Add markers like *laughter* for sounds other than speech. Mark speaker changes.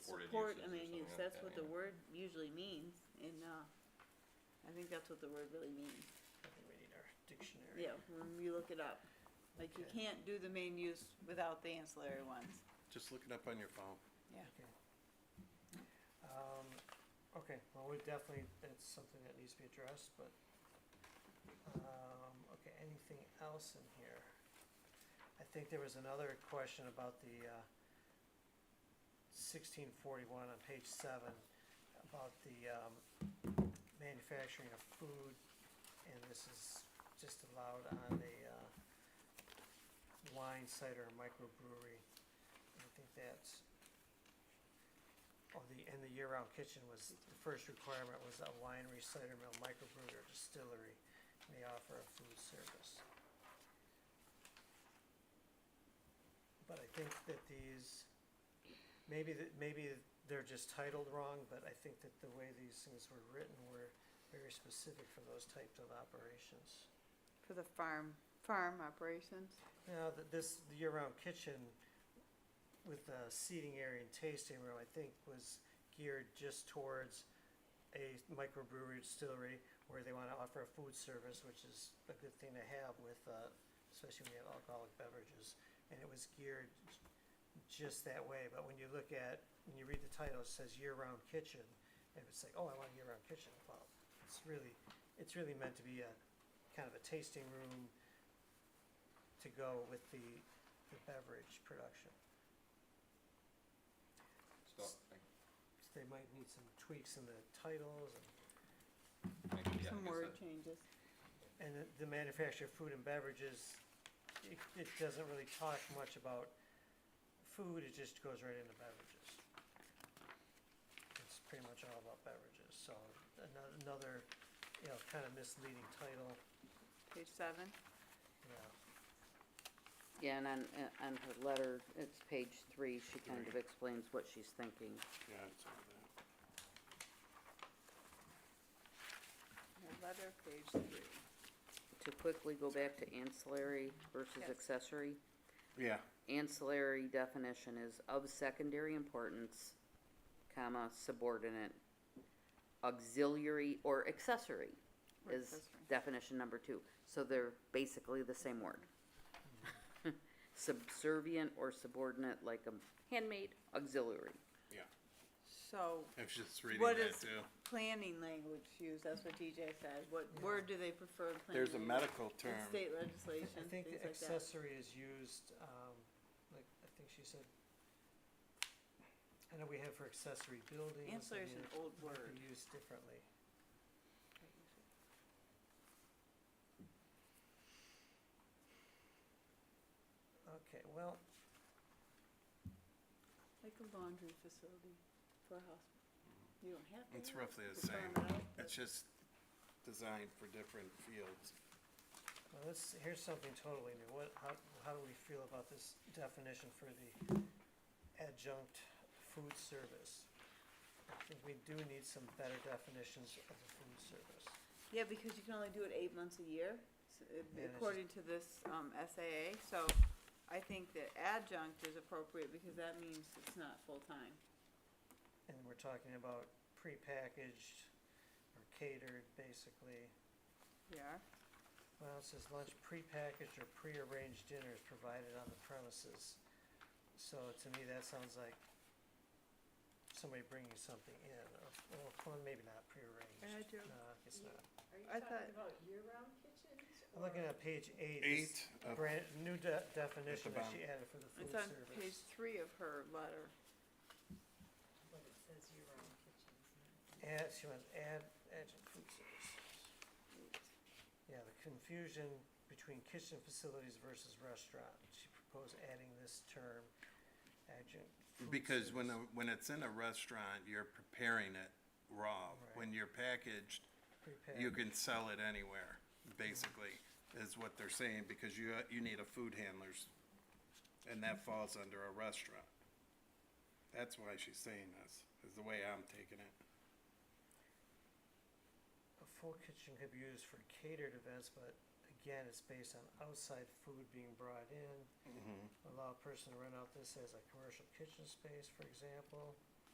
Speaker 1: support
Speaker 2: uses
Speaker 1: a
Speaker 2: or
Speaker 1: man
Speaker 2: something
Speaker 1: use,
Speaker 2: like
Speaker 1: that's
Speaker 2: that,
Speaker 1: what
Speaker 2: yeah.
Speaker 1: the word usually means, and, uh, I think that's what the word really means,
Speaker 3: I think we need our dictionary.
Speaker 1: yeah, when you look it up. Like, you
Speaker 3: Okay.
Speaker 1: can't do the main use without the ancillary ones.
Speaker 2: Just look it up on your phone.
Speaker 3: Um, okay, well, we definitely, that's something that needs to be addressed, but, um, okay, anything else in here? I think there was another question about the, uh, sixteen forty-one on page seven, about the, um, manufacturing of food, and this is just allowed on a, uh, wine, cider, and microbrewery. I think that's Oh, the, and the year-round kitchen was, the first requirement was a winery, cider mill, microbrewery, or distillery may offer a food service. But I think that these, maybe, that- maybe they're just titled wrong, but I think that the way these things were written were very specific for those types of operations.
Speaker 1: For the farm, farm operations,
Speaker 3: Now, th this year-round kitchen with the seating area and tasting room, I think was geared just towards a microbrewery distillery where they wanna offer a food service, which is a good thing to have with, uh, especially when you have alcoholic beverages. And it was geared j- just that way, but when you look at, when you read the title, it says year-round kitchen, and it's like, oh, I want a year-round kitchen, well, it's really, it's really meant to be a, kind of a tasting room to go with the, the beverage production.
Speaker 2: Stop. Thank-
Speaker 3: So They might need some tweaks in the titles and,
Speaker 2: thank you. Yeah, I
Speaker 1: some
Speaker 2: guess
Speaker 1: word
Speaker 2: that-
Speaker 1: changes.
Speaker 3: and the- the manufacturer of food and beverages, it, it doesn't really talk much about food, it just goes right into beverages. It's pretty much all about beverages, so ano- another, you know, kind of misleading title,
Speaker 1: Page seven,
Speaker 3: you know.
Speaker 4: Yeah, and on, uh, on her letter, it's page three, she kind of explains what she's thinking.
Speaker 2: Yeah, it's over there.
Speaker 1: the letter, page three.
Speaker 4: To quickly go back to ancillary versus
Speaker 1: Yes.
Speaker 4: accessory,
Speaker 2: Yeah,
Speaker 4: ancillary definition is of secondary importance, comma, subordinate, auxiliary or accessory
Speaker 1: Or
Speaker 4: is
Speaker 1: accessory.
Speaker 4: definition number two. So they're basically the same word. *laughs* Subservient or subordinate, like a handmade auxiliary.
Speaker 1: So,
Speaker 2: I was just reading
Speaker 1: What
Speaker 2: that
Speaker 1: is-
Speaker 2: too.
Speaker 1: planning language used, that's what TJ said, what word do they prefer in planning?
Speaker 2: There's a
Speaker 1: language?
Speaker 2: medical
Speaker 1: In
Speaker 2: term.
Speaker 1: state legislation,
Speaker 3: I think
Speaker 1: things
Speaker 3: the
Speaker 1: like that.
Speaker 3: accessory is used, um, like, I think she said, I know we have for accessory buildings. I
Speaker 1: Ancillary is
Speaker 3: mean,
Speaker 1: an
Speaker 3: it
Speaker 1: old
Speaker 3: might be
Speaker 1: word.
Speaker 3: Used differently. Okay, well,
Speaker 1: Like a laundry facility for a hospital. You don't have to.
Speaker 2: It's
Speaker 1: have
Speaker 2: roughly
Speaker 1: to
Speaker 2: the same.
Speaker 1: farm it out, but
Speaker 2: It's just designed for different fields.
Speaker 3: well, let's, here's something totally new. What, how, how do we feel about this definition for the adjunct food service? I think we do need some better definitions of the food service.
Speaker 1: Yeah, because you can only do it eight months a year, s- uh,
Speaker 3: Yeah, that's
Speaker 1: according to this um, SAA, so I think that adjunct is appropriate because that means it's not full-time.
Speaker 3: And we're talking about prepackaged or catered, basically.
Speaker 1: Yeah.
Speaker 3: Well, it says lunch prepackaged or prearranged dinners provided on the premises. So to me, that sounds like somebody bringing something in, or, or- well, maybe not prearranged.
Speaker 1: I do.
Speaker 3: No, it's not.
Speaker 1: I
Speaker 5: Are you
Speaker 1: thought-
Speaker 5: talking about year-round kitchens?
Speaker 3: I'm looking
Speaker 5: or-
Speaker 3: at page eight. this
Speaker 2: Eight uh, of
Speaker 3: Brand, new de- definition that
Speaker 2: bottom.
Speaker 3: she added for the food
Speaker 1: It's on
Speaker 3: service.
Speaker 1: page three of her letter.
Speaker 5: But it says year-round kitchens.
Speaker 3: Add, she wants add, adjunct food services. Yeah, the confusion between kitchen facilities versus restaurant, she proposed adding this term, adjunct food
Speaker 2: Because when,
Speaker 3: service,
Speaker 2: a- when it's in a restaurant, you're preparing it raw. When you're packaged, you
Speaker 3: prepackaged.
Speaker 2: can sell it anywhere, basically, is what they're saying, because you, you need a food handler's, and that falls under a restaurant. That's why she's saying this, is the way I'm taking it.
Speaker 3: A full kitchen could be used for catered events, but again, it's based on outside food being
Speaker 2: Mm-hmm.
Speaker 3: brought in. Allow a person to rent out this as a commercial kitchen space, for example.